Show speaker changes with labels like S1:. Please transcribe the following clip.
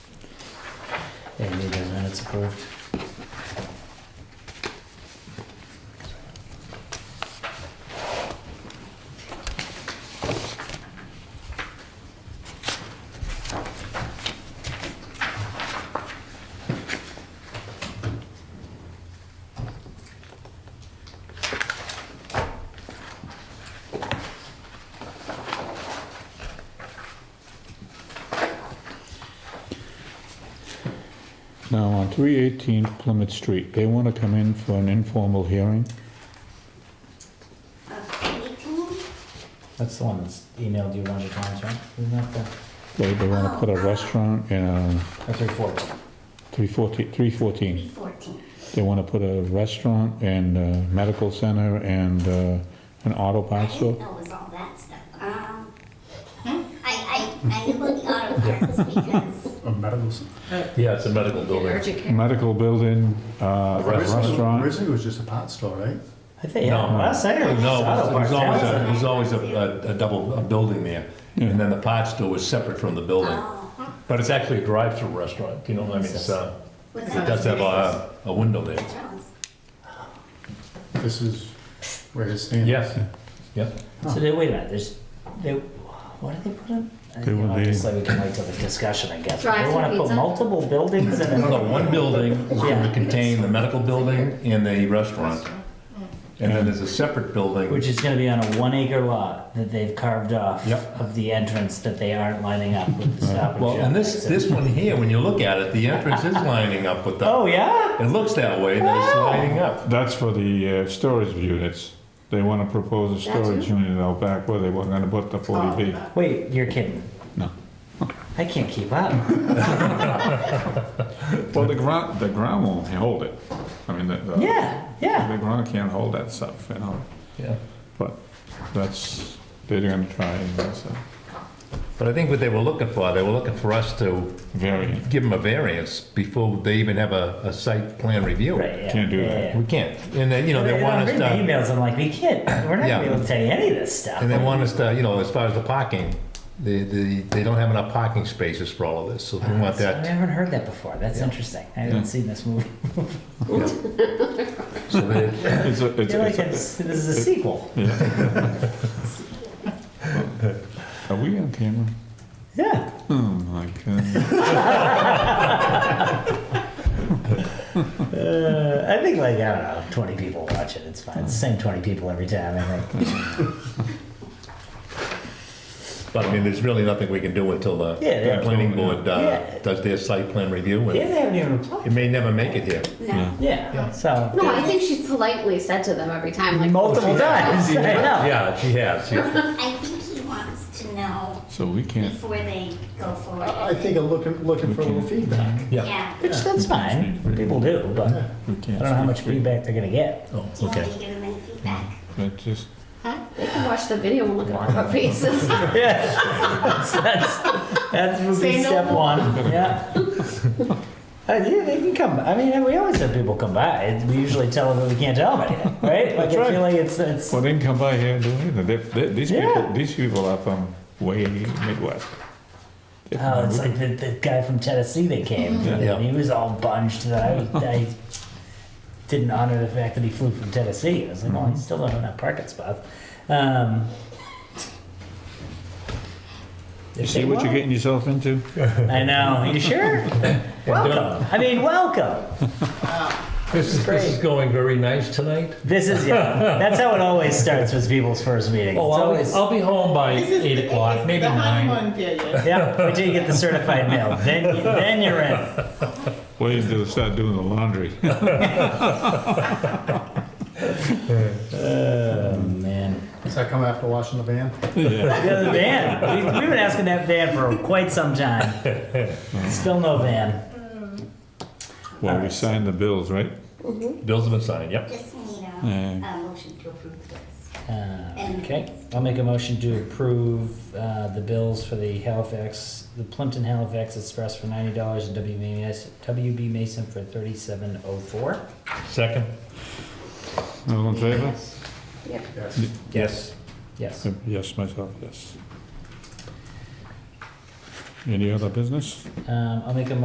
S1: They need those minutes approved.
S2: Now, on 318 Plymouth Street, they want to come in for an informal hearing?
S1: That's the one that's emailed you a bunch of times, right? Isn't that the,
S2: They, they want to put a restaurant in uh, a
S1: or three fourteen?
S2: 314, 314.
S3: 14.
S2: They want to put a restaurant and a medical center and uh, an auto
S3: I
S2: parts
S3: didn't
S2: store?
S3: know it was all that stuff. Um, I, I, I knew about the auto parts because
S4: A medical center.
S5: Yeah, it's a medical building.
S6: Urgent care.
S2: Medical building, uh, a restaurant.
S4: Originally, it was just a pot store, right?
S1: I think, yeah,
S5: No.
S1: last night it was
S5: No,
S1: auto
S5: it was
S1: parts.
S5: always,
S1: yeah.
S5: a- it was always a, a- a double, a building there. And then the pot store was separate from the building. But it's actually a drive-through restaurant, you know, I mean, it's, uh,
S3: was
S5: it
S3: that
S5: does have a, a window there.
S3: Jones?
S4: This is where his stand.
S5: Yes, yep.
S1: So they, wait a minute, there's, they, what did they put in? I
S2: They
S1: you know,
S2: were the-
S1: Obviously, we can wait till the discussion, I guess. They
S6: Drive-through
S1: wanna put
S6: pizza?
S1: multiple buildings in
S5: No,
S1: it.
S5: one building is going to contain the medical building and the restaurant. And then there's a separate building.
S1: Which is gonna be on a one acre lot that they've carved off
S5: Yep.
S1: of the entrance that they aren't lining up with the stop and
S5: Well,
S1: shop.
S5: and this,
S1: exit.
S5: this one here, when you look at it, the entrance is lining up with
S1: Oh,
S5: the,
S1: yeah?
S5: it looks that way, that it's lining up.
S2: That's for the uh, storage units. They want to propose a storage unit out back where they were going to put the 40B.
S1: Wait, you're kidding.
S2: No.
S1: I can't keep up.
S2: Well, the ground, the ground won't hold it. I mean, the, the
S1: Yeah, yeah.
S2: the ground can't hold that stuff, you know?
S5: Yeah.
S2: But that's, they're gonna try and that's a
S5: But I think what they were looking for, they were looking for us to
S2: variant.
S5: give them a variance before they even have a, a site plan review.
S1: Right, yeah.
S2: Can't do
S1: yeah,
S2: that.
S1: yeah.
S5: We can't, and then, you know, they
S1: And
S5: want
S1: I'm
S5: us
S1: reading the
S5: to,
S1: emails. I'm like, we can't. We're not gonna be
S5: Yeah.
S1: able to tell you any of this stuff.
S5: and they want us to, you know, as far as the parking, they, they, they don't have enough parking spaces for all of this, so they want
S1: I
S5: that.
S1: haven't heard that before. That's interesting. I haven't
S2: Yeah.
S1: seen this movie.
S5: So they,
S2: It's a,
S1: I
S2: it's
S1: feel like
S2: a,
S1: it's, this is a sequel.
S2: are we on camera?
S1: Yeah.
S2: Oh my god.
S1: Uh, I think like I don't know, 20 people watch it. It's fine. It's the same 20 people every time. I think.
S5: but I mean, there's really nothing we can do until the
S1: Yeah, yeah.
S5: the planning board,
S1: Yeah.
S5: uh, does their site plan review,
S1: yeah,
S5: and
S1: they haven't even replied.
S5: it may never make it here.
S3: No.
S1: Yeah.
S5: Yeah.
S1: So
S6: No, I think she politely said to them every time, like,
S1: multiple times. I know.
S5: Yeah, she has, she-
S3: I think he wants to know
S2: So we can't,
S3: before they go forward.
S4: I I think I'm looking, looking for a little feedback.
S5: yeah.
S3: Yeah.
S1: Which that's fine. People do, but I
S2: we
S1: don't
S2: can't.
S1: know how much
S2: speak.
S1: feedback they're gonna get.
S5: Oh,
S3: Do you want me
S5: okay.
S3: to give him any feedback?
S2: But just,
S6: huh? They can watch the video and look at all our faces.
S1: Yeah. that's that's would be
S6: Say no
S1: step
S6: more.
S1: one. Yeah. Uh, yeah, they can come. I mean, we always have people come by. We usually tell them that we can't tell them anything, right? Like, I
S2: right.
S1: feel like it's it's.
S2: well, they can come by here and do anything. They- they- These
S1: Yeah.
S2: people, these people are from way Midwest. They're from
S1: Oh, it's
S2: Wood-
S1: like the, the guy from Tennessee that came.
S5: Yeah.
S1: And he was all bunched that I, was- I didn't honor the fact that he flew from Tennessee. I was like, oh, he still don't have that parking spot. Um,
S2: You see what you're getting yourself into?
S1: I know. You sure? welcome. I mean, welcome.
S5: This is, this is going very nice tonight.
S1: This is yeah. That's how it always starts with people's first meetings.
S5: Oh,
S1: it's
S5: I'll,
S1: always
S5: I'll be home by
S7: This is
S5: eight
S7: the-
S5: o'clock,
S7: it's
S5: maybe
S7: the
S5: nine.
S7: honeymoon period.
S1: yeah. Wait till you get the certified mail. Then you, then you're in.
S2: Wait until they start doing the laundry.
S1: Oh man.
S4: Does that come after washing the van?
S2: Yeah.
S1: The other van. We, we've been asking that van for quite some time. Still no van.
S2: Well, we signed the bills, right?
S5: Bills have been signed, yep.
S3: Just need
S2: Mm.
S3: a, a motion to approve this.
S1: Uh, okay. I'll make a motion to approve uh, the bills for the Halifax, the Plimpton Halifax Express for ninety dollars and WB Mason, WB Mason for thirty-seven oh four.
S5: Second?
S2: All in favor? Uh,
S4: Yes.
S5: Yes.
S1: Yes.
S2: Yes, myself, yes. Any other business?
S1: Um, I'll make a